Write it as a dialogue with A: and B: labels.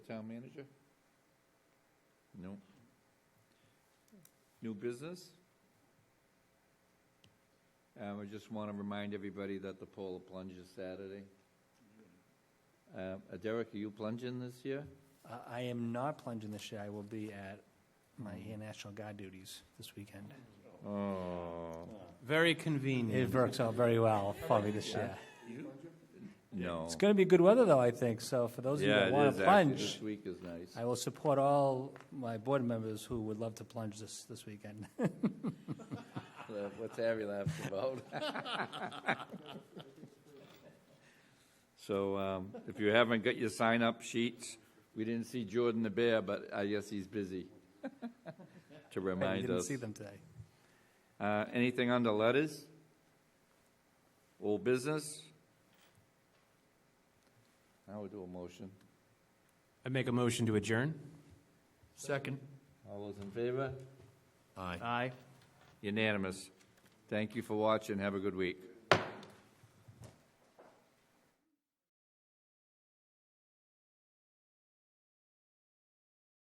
A: Town manager? No. New business? Um, I just want to remind everybody that the polar plunge is Saturday. Uh, Derek, are you plunging this year?
B: Uh, I am not plunging this year. I will be at my Air National Guard duties this weekend.
A: Oh,
C: Very
B: It
A: Mm.
C: convenient.
B: works out very well for me this year.
A: no.
B: It's going to be good weather, though, I think. So for those of you
A: Yeah,
B: that
A: it
B: want
A: is
B: to
A: actually.
B: plunge,
A: This week is nice.
B: I will support all my board members who would love to plunge this, this weekend.
A: Uh, What's Harry laughing about? So um, if you haven't got your sign-up sheets, we didn't see Jordan the Bear, but I guess he's busy to
B: I
A: remind
B: didn't
A: us.
B: see them today.
A: Uh, Anything under letters? Old business? I would do a motion.
C: I make a motion to adjourn.
B: Second.
A: All those in favor?
C: Aye.
A: Unanimous. Thank you for watching. Have a good week.